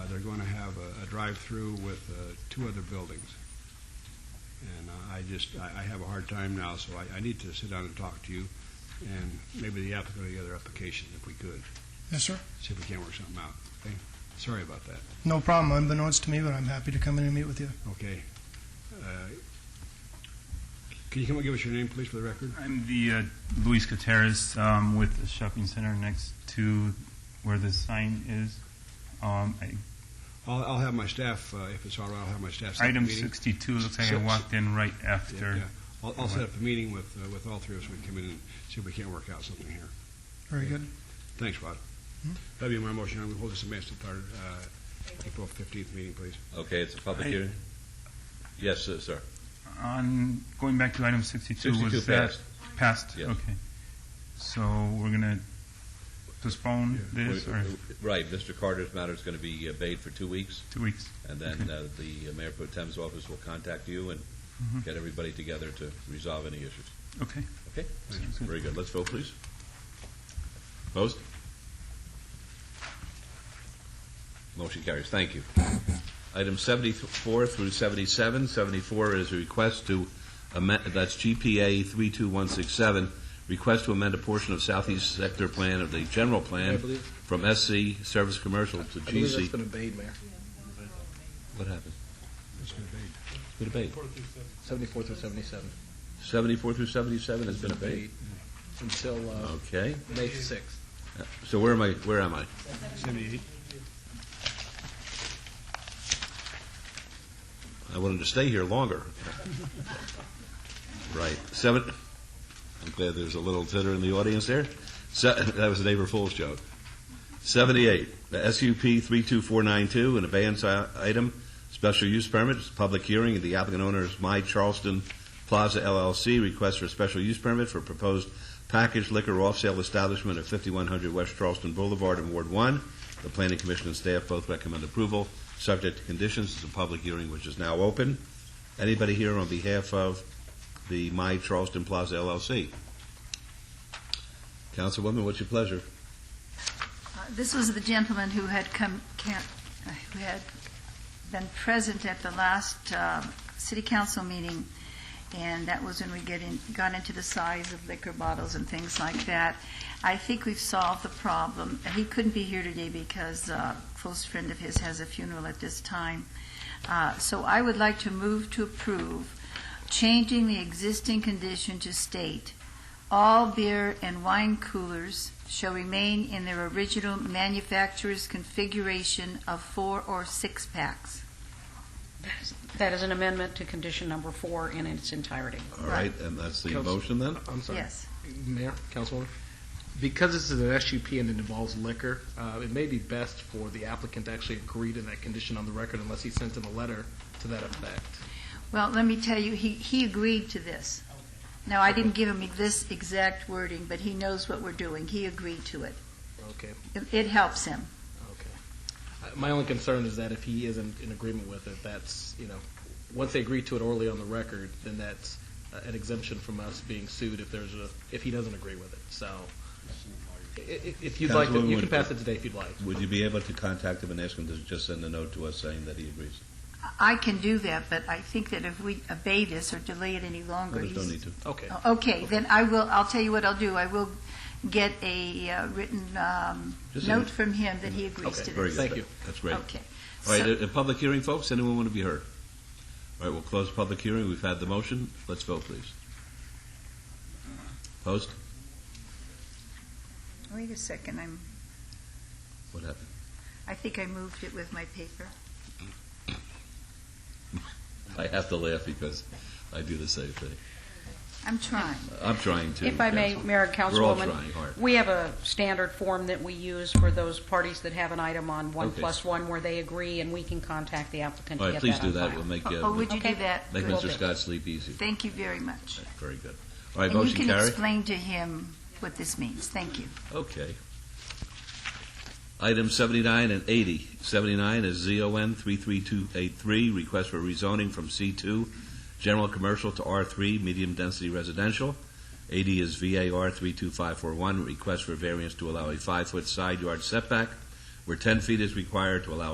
going to Uh, have a, a drive-through with uh, two other buildings. And uh, I just, I, I have a hard time now, so I, I need to sit down and talk to you and maybe the applicant or the other application if we could, Yes, sir. see if we can't work something out. Okay? Sorry about that. No problem. Unbeknownst to me, but I'm happy to come in and meet with you. Okay. Uh, Can you come and give us your name, please, for the record? I'm the uh, Luis Gutierrez um, with the shopping center next to where the sign is. Um, I- I'll, I'll have my staff, uh, if it's all right, I'll have my staff. set up a item meeting. 62 looks like I Six. walked in right Yeah, after. yeah. I'll, I'll set up a meeting with, uh, with all three of us. We can come in and see if we can't work out something here. Very good. Thanks, Rod. Mhm. That'd be my motion. I would hold this amendment to our, uh, April fifteenth meeting, please. Okay, it's a public I- hearing? Yes, sir, sir. On going back to item 62, 62 was that passed. passed? Yeah. Okay. So we're going to postpone this We- or Right, Mr. Carter's matter is going to be obeyed for two weeks, two weeks? and then uh, the Mayor Pro Tem's office will contact you and Mhm. get everybody together to resolve any issues. Okay. Okay? Sounds good. Very good. Let's vote, please. Opposed? Motion carries. Thank you. Item 74 through 77. 74 is a request to amend, that's GPA 32167, request to amend a portion of Southeast Sector Plan of the General I Plan believe, from SC Service Commercial to I believe that's GC. been obeyed, Mayor. What happened? That's good, Dave. Been obeyed. 74 through 77. 74 through 77 has been obeyed. Until uh, Okay. May 6th. So where am I, where am I? Seventy-eight. I wanted to stay here longer. right. Seven. I'm glad there's a little titter in the audience there. Se- that was a neighbor fool's joke. 78. The SUP 32492, an abeyance i- item, special use permit, it's a public hearing. The applicant owner is My Charleston Plaza LLC. Request for a special use permit for proposed packaged liquor off sale establishment at 5100 West Charleston Boulevard in Ward 1. The Planning Commission and staff both recommend approval subject to conditions. It's a public hearing which is now open. Anybody here on behalf of the My Charleston Plaza LLC? Councilwoman, what's your pleasure? Uh, This was the gentleman who had come, can uh, who had been present at the last um, city council meeting, and that was when we get in, got into the size of liquor bottles and things like that. I think we've solved the problem. He couldn't be here today because uh, a close friend of his has a funeral at this time. Uh, So I would like to move to approve changing the existing condition to state all beer and wine coolers shall remain in their original manufacturer's configuration of four or six packs. That is- That is an amendment to condition number four in its entirety. All right, and that's the Council- motion then? I'm sorry. Yes. Mayor, Councilwoman, because this is an SUP and it involves liquor, uh, it may be best for the applicant to actually agree to that condition on the record unless he sent in a letter to that effect. Well, let me tell you, he, he agreed to this. Now, I didn't give him this exact wording, but he knows what we're doing. He agreed to it. Okay, It- It helps him. okay. Uh, My only concern is that if he isn't in agreement with it, that's, you know, once they agree to it orally on the record, then that's uh, an exemption from us being sued if there's a, if he doesn't agree with it, so. i- i- If you'd like, to- you can pass it today if you'd like. Would you be able to contact him and ask him to just send a note to us saying that he agrees? I can do that, but I think that if we obey this or delay it any longer, There's no he's- need to. Okay. Oh, Okay, then I will, I'll tell you what I'll do. I will get a uh, written um, Just a- Mm-hmm. note from him that he agrees to Okay, this. Very good. Thank you. That's great. Okay. All right, So- a, a public hearing, folks, anyone want to be heard? All right, we'll close the public hearing, we've had the motion, let's vote, please. Post, Wait a second, I'm, what happened? I think I moved it with my paper. I have to laugh because I do the same thing. I'm trying. I'm trying to. If I may, Council. Mayor and We're all Councilwoman, trying hard. we have a standard form that we use for those parties that have an item on one Okay. plus one where they agree, and we can contact the applicant All to right, get please that do on that, file. we'll make, Oh, uh, would you do that? make Will Mr. do. Scott sleep easy. Thank you very much. Very good. All right, And you motion can carried. explain to him what this means. Thank you. Okay. Item 79 and 80. 79 is ZON 33283, request for rezoning from C2, general commercial to R3, medium density residential. 80 is VAR 32541, request for variance to allow a five-foot side yard setback, where 10 feet is required to allow